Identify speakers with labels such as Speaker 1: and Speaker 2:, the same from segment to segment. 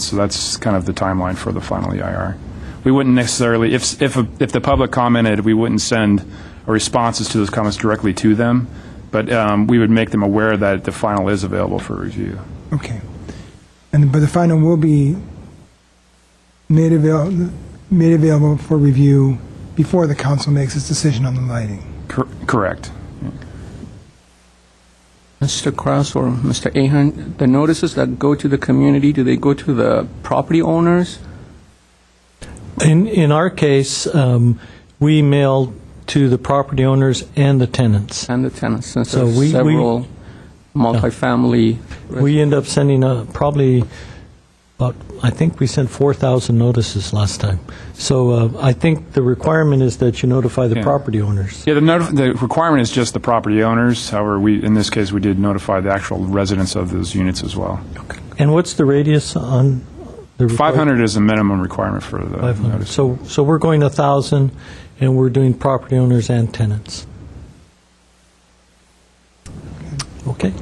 Speaker 1: So that's kind of the timeline for the final EIR. We wouldn't necessarily, if, if, if the public commented, we wouldn't send responses to those comments directly to them, but um, we would make them aware that the final is available for review.
Speaker 2: Okay. And, but the final will be made avail, made available for review before the council makes its decision on the lighting.
Speaker 1: Cor- Correct.
Speaker 3: Mr. Kraus or Mr. Ahern, the notices that go to the community, do they go to the property owners?
Speaker 4: In, in our case, um, we mail to the property owners and the tenants.
Speaker 3: And the tenants, since
Speaker 4: So
Speaker 3: there's
Speaker 4: we- we-
Speaker 3: several multifamily.
Speaker 4: We end up sending uh, probably about, I think we sent 4,000 notices last time. So uh, I think the requirement is that you notify the
Speaker 1: Yeah.
Speaker 4: property owners.
Speaker 1: Yeah, the, notif- the requirement is just the property owners. However, we, in this case, we did notify the actual residents of those units as well.
Speaker 4: And what's the radius on the? requir-
Speaker 1: 500 is the minimum requirement for the
Speaker 4: 500.
Speaker 1: notice.
Speaker 4: So, so we're going to 1,000, and we're doing property owners and tenants. Okay?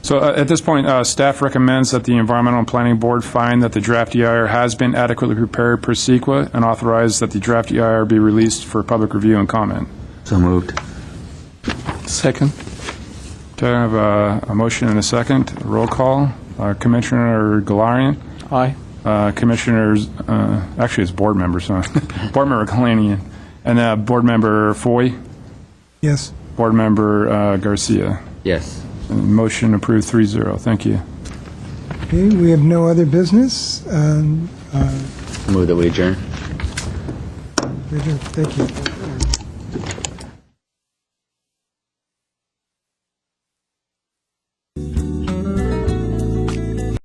Speaker 1: So uh, at this point, uh, staff recommends that the Environmental and Planning Board find that the draft EIR has been adequately prepared per SEQA and authorize that the draft EIR be released for public review and comment.
Speaker 5: So moved.
Speaker 3: Second.
Speaker 1: Okay, I have a, a motion and a second. Roll call. Uh, Commissioner Galarian,
Speaker 3: Aye.
Speaker 1: uh, Commissioners, uh, actually, it's board members, huh? Board Member Galarian, and uh, Board Member Foy,
Speaker 2: Yes?
Speaker 1: Board Member uh, Garcia.
Speaker 5: Yes.
Speaker 1: And Motion approved 3-0. Thank you.
Speaker 2: Okay, we have no other business. Um,
Speaker 5: Move that we adjourn.
Speaker 2: Richard, Thank you.